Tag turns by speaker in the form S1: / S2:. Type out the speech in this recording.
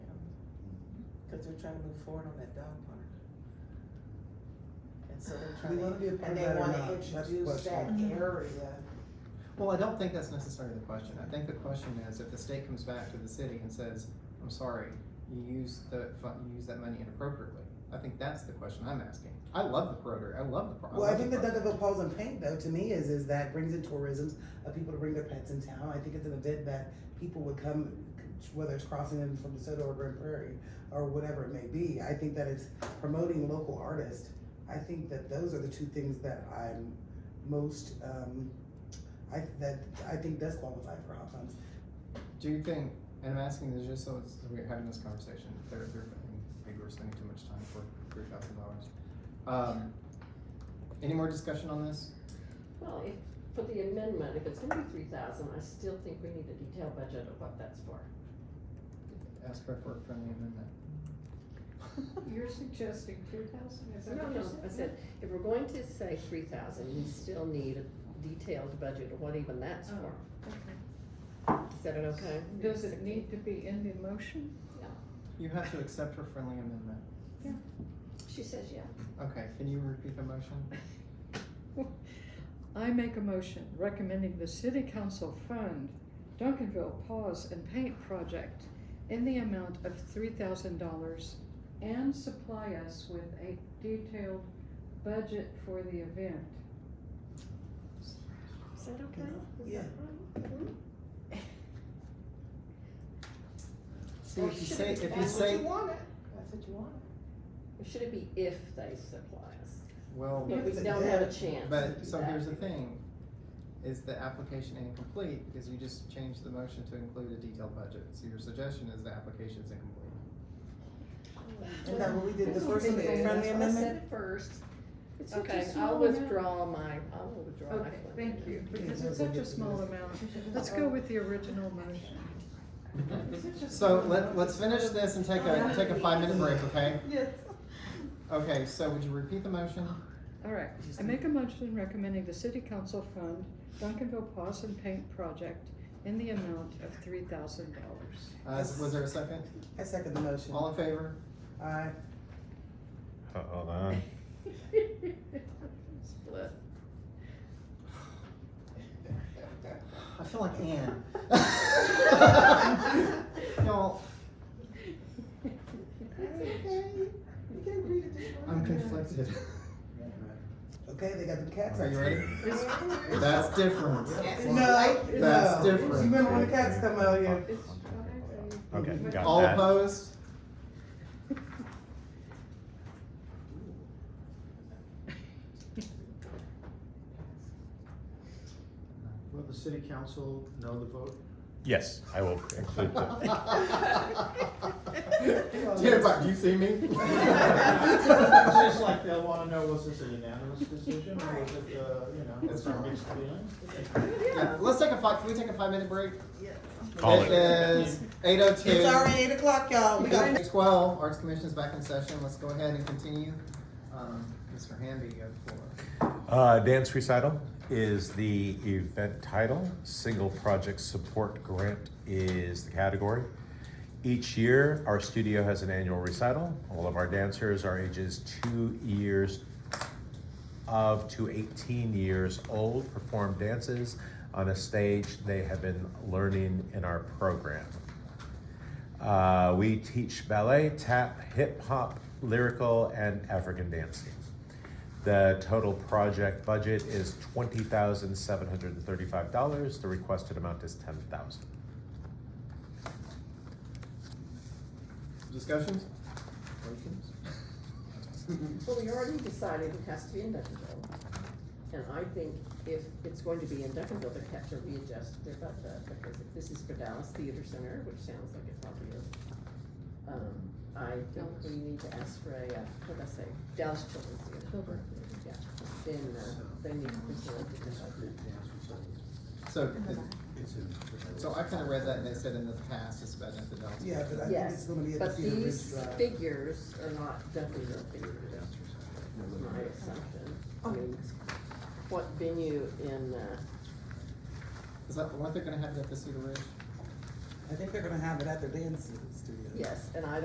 S1: Cause we're trying to move forward on that dog park. And so they're
S2: We
S1: trying
S2: wanna
S1: to,
S2: be a
S1: and
S2: part of
S1: they
S2: that or
S1: wanna
S2: not, that's the
S1: introduce that
S2: question.
S3: Mm-hmm.
S1: area.
S4: Well, I don't think that's necessarily the question. I think the question is if the state comes back to the city and says, I'm sorry, you used the, fu- you used that money inappropriately. I think that's the question I'm asking. I love the Rotary, I love the. pro-
S2: Well, I
S4: love
S2: think
S4: the
S2: the
S4: pro-
S2: Duncanville Paws and Paint though, to me, is, is that brings in tourism of people to bring their pets in town. I think it's an event that people would come, whether it's crossing in from DeSoto or Grand Prairie or whatever it may be. I think that it's promoting local artists. I think that those are the two things that I'm most, um, I, that, I think does qualify for hot funds.
S4: Do you think, and I'm asking this just so it's, we're having this conversation, they're, they're, I think we're spending too much time for three thousand dollars. Um, any more discussion on this?
S3: Well, if, for the amendment, if it's gonna be three thousand, I still think we need a detailed budget of what that's for.
S4: Ask for a friendly amendment.
S5: You're suggesting two thousand, is that
S3: No,
S5: what you
S3: no,
S5: said?
S3: I said, if we're going to say three thousand, we still need a detailed budget of what even that's for.
S5: Oh, Okay.
S3: Is that an okay?
S5: Does it need to be in the motion?
S4: You have to accept her friendly amendment.
S3: She says yeah.
S4: Okay, can you repeat the motion?
S5: I make a motion recommending the city council fund Duncanville Paws and Paint Project in the amount of three thousand dollars and supply us with a detailed budget for the event.
S3: Is that okay? Is that
S2: Yeah.
S3: right? Mhm.
S4: See,
S3: Or
S4: if you
S3: should
S4: say,
S3: it be
S4: if you
S3: backwards?
S4: say,
S1: That's what you wanted, that's what you wanted.
S3: Or Should it be if they supply us?
S4: well,
S3: But we
S2: If
S3: don't
S2: they-
S3: have a chance. to
S4: but,
S3: do
S4: so
S3: that.
S4: here's the thing, is the application incomplete, because you just changed the motion to include a detailed budget, so your suggestion is the application's incomplete.
S2: And that what we did, the
S5: Well,
S2: first
S5: that's
S2: amendment,
S5: what they-
S2: friendly
S5: that's
S3: I
S2: amendment?
S3: said it first.
S5: It's such a
S3: Okay,
S5: small
S3: I'll
S5: amount.
S3: withdraw my, I'll withdraw my.
S5: Okay,
S3: friendly
S5: thank you,
S3: amendment.
S5: because it's such a small amount. Let's go with the original motion.
S4: So let, let's finish this and take a, take a five minute break, okay?
S1: Yes.
S4: Okay, so would you repeat the motion? Uh,
S5: All right, I make a motion recommending the city council fund Duncanville Paws and Paint Project in the amount of three thousand dollars.
S4: Uh, was there a second?
S2: I second the motion.
S4: All in favor?
S2: Aye.
S6: Hold on.
S3: Split.
S4: I feel like Anne. Y'all,
S1: You can't read it just
S4: I'm
S1: like that.
S4: conflicted.
S2: Okay, they got the cats.
S4: Are you ready?
S2: It's-
S4: That's different.
S2: No, I, no.
S4: That's different.
S2: You remember when the cats come out here?
S6: Okay, got
S4: All
S6: that.
S4: opposed?
S7: Will the city council know the vote?
S6: Yes, I will include that.
S4: Yeah, but do you see me?
S7: Just like they'll wanna know, was this a unanimous decision, or was it, uh, you know,
S4: That's
S7: was there
S4: right.
S7: mixed feelings?
S4: Yeah, Let's take a five, can we take a five minute break?
S6: Call
S4: It
S6: it.
S4: is eight oh two.
S2: It's already eight o'clock, y'all. We got
S4: Twelve, Arts Commission is back in session, let's go ahead and continue. Um, Mr. Hamby, you have the floor.
S6: Uh, Dance Recital is the event title. Single Project Support Grant is the category. Each year, our studio has an annual recital. All of our dancers are ages two years of to 18 years old, perform dances on a stage they have been learning in our program. Uh, we teach ballet, tap, hip hop, lyrical, and African dancing. The total project budget is twenty thousand seven hundred and thirty-five dollars. The requested amount is ten thousand.
S4: Discussions?
S3: Well, we already decided it has to be in Duncanville. And I think if it's going to be in Duncanville, they have to readjust their budget, because if this is for Dallas Theater Center, which sounds like it probably is. Um, I think we need to ask for a, uh, what did I say, Dallas Children's Theater.
S5: Children's
S3: Yeah, then, uh, they need to present it to budget.
S4: So, so I kinda read that and they said in the past, it's been at the Dallas.
S2: Yeah, but I think
S3: Yes,
S2: it's gonna be at the
S3: But
S2: Cedar Ridge
S3: these
S2: Drive.
S3: figures are not Duncanville figures, is my assumption. I mean, what venue in, uh,
S4: Is that, weren't they gonna have that at the Cedar Ridge?
S2: I think they're gonna have it at their dance studio.
S3: yes, and I